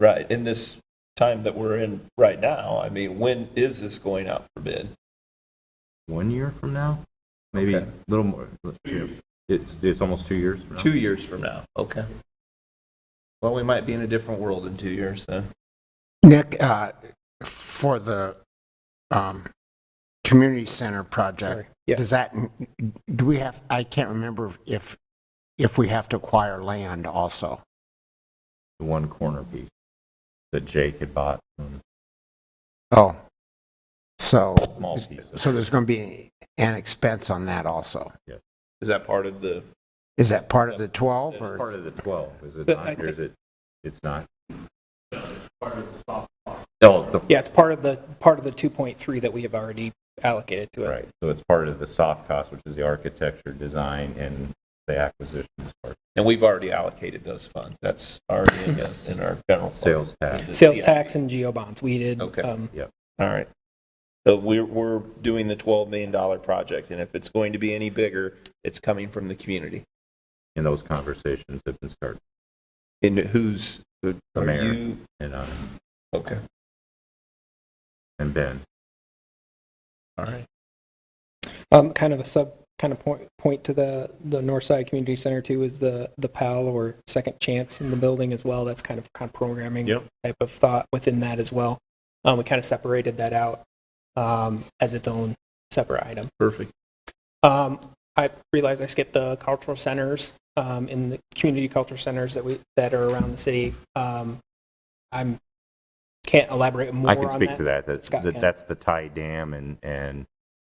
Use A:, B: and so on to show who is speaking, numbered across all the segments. A: right, in this time that we're in right now, I mean, when is this going out for bid?
B: one year from now, maybe a
A: Okay.
B: little more. It's, it's almost two years from now.
A: Two years from now, okay. Well, we might be in a different world in two years then.
C: Nick, uh, for the um, community center project,
A: Yeah.
C: does that, do we have, I can't remember if, if we have to acquire land also.
B: The one corner piece that Jake had bought, um,
C: Oh. So,
B: small pieces.
C: so there's going to be an expense on that also.
A: Is that part of the,
C: Is that part of the 12
B: It's
C: or?
B: part of the 12, is it
D: But
B: not,
D: I
B: or is it, it's not? Oh, the-
D: Yeah, it's part of the, part of the 2.3 that we have already allocated to it.
B: right, so it's part of the soft cost, which is the architecture, design, and the acquisition part,
A: and we've already allocated those funds, that's already in, the- in our general. fund.
B: sales tax.
A: The
D: Sales
A: CIP.
D: tax and geo bonds, we did.
A: Okay.
D: um,
A: All right. So we're, we're doing the $12 million project, and if it's going to be any bigger, it's coming from the community.
B: And those conversations have been started,
A: And who's,
B: The
A: are
B: mayor.
A: you?
B: and, uh,
A: Okay,
B: and Ben.
A: all right.
D: Um, kind of a sub, kind of point, point to the, the North Side Community Center too is the, the PAL or Second Chance in the building as well. That's kind of, kind of programming
A: Yep.
D: type of thought within that as well. Um, we kind of separated that out, um, as its own separate item.
A: Perfect.
D: Um, I realize I skipped the cultural centers, um, in the community culture centers that we, that are around the city. Um, I'm, can't elaborate more
B: I
D: on that.
B: can speak to that. That's,
D: Scott
B: that-
D: can.
B: that's the tie dam and, and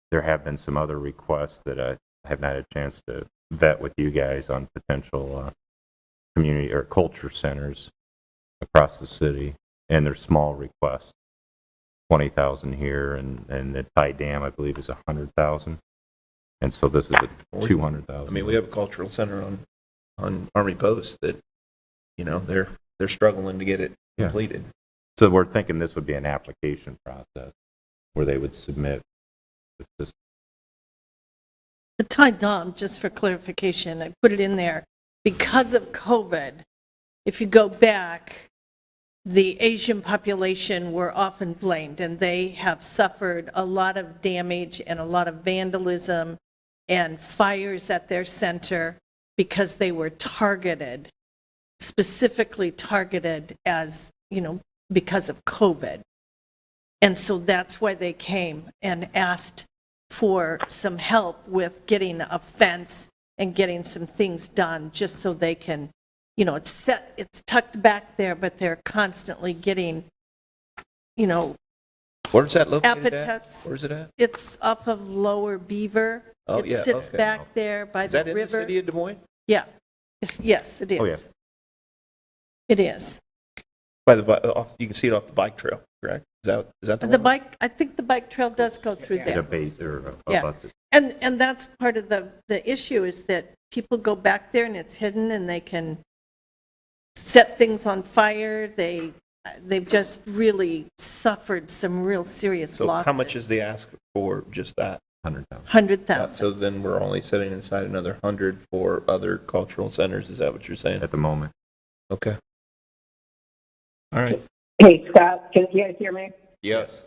B: there have been some other requests that I have not had a chance to vet with you guys on potential, uh, community or culture centers across the city. And they're small requests, 20,000 here and, and the tie dam, I believe, is 100,000. And so this is a 200,000.
A: I mean, we have a cultural center on, on Army Post that, you know, they're, they're struggling to get it
B: Yeah.
A: completed.
B: So we're thinking this would be an application process where they would submit this
E: The Ty Dom, just for clarification, I put it in there, because of COVID, if you go back, the Asian population were often blamed, and they have suffered a lot of damage and a lot of vandalism and fires at their center because they were targeted, specifically targeted as, you know, because of COVID. And so that's why they came and asked for some help with getting a fence and getting some things done, just so they can, you know, it's set, it's tucked back there, but they're constantly getting, you know,
A: Where's that located at?
E: Appetites.
A: Where's it at?
E: it's off of Lower Beaver.
A: Oh, yeah,
E: It sits
A: okay.
E: back there by
A: Is
E: the
A: that in the
E: river.
A: city of Des Moines?
E: Yeah, It's- yes, it
B: Oh, yeah.
E: is. It is.
A: By the, bi- off, you can see it off the bike trail, correct? Is that, is that the one?
E: The bike, I think the bike trail does go through there.
B: debate or
E: Yeah.
B: abuts it.
E: And, and that's part of the, the issue is that people go back there and it's hidden and they can set things on fire. They, they've just really suffered some real serious
A: So
E: losses.
A: how much is the ask for just that?
B: 100,000.
A: Uh,
E: 100,000.
A: So then we're only setting aside another 100 for other cultural centers, is that what you're saying?
B: at the moment.
A: Okay. All right.
F: Hey, Scott, can you guys hear me?
A: Yes.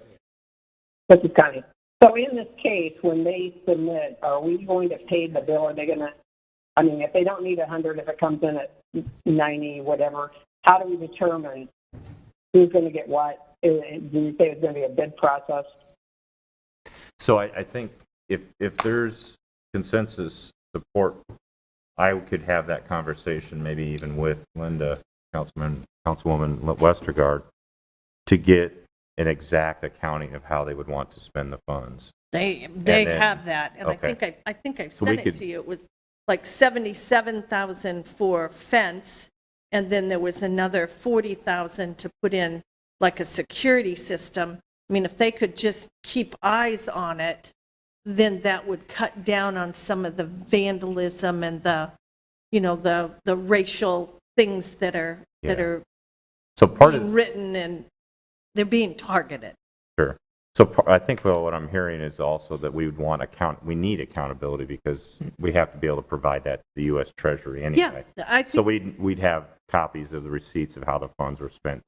F: This is Connie. So in this case, when they submit, are we going to pay the bill? Are they gonna, I mean, if they don't need a hundred, if it comes in at ninety, whatever, how do we determine who's gonna get what? Uh, Do you say it's gonna be a bid process?
B: So I, I think if, if there's consensus support, I could have that conversation, maybe even with Linda, Councilman, Councilwoman Westergaard, to get an exact accounting of how they would want to spend the funds.
E: They, they
B: then-
E: have that. And I
B: okay.
E: think I, I think I
B: So we
E: sent it
B: could-
E: to you. It was like 77,000 for fence. And then there was another 40,000 to put in like a security system. I mean, if they could just keep eyes on it, then that would cut down on some of the vandalism and the, you know, the, the racial things that are, that
B: Yeah.
E: are
B: So part
E: being
B: of,
E: written and they're being targeted.
B: sure. So par- I think well, what I'm hearing is also that we would want account, we need accountability because we have to be able to provide that to the US Treasury anyway.
E: Yeah, I
B: So
E: think,
B: we'd, we'd have copies of the receipts of how the funds were spent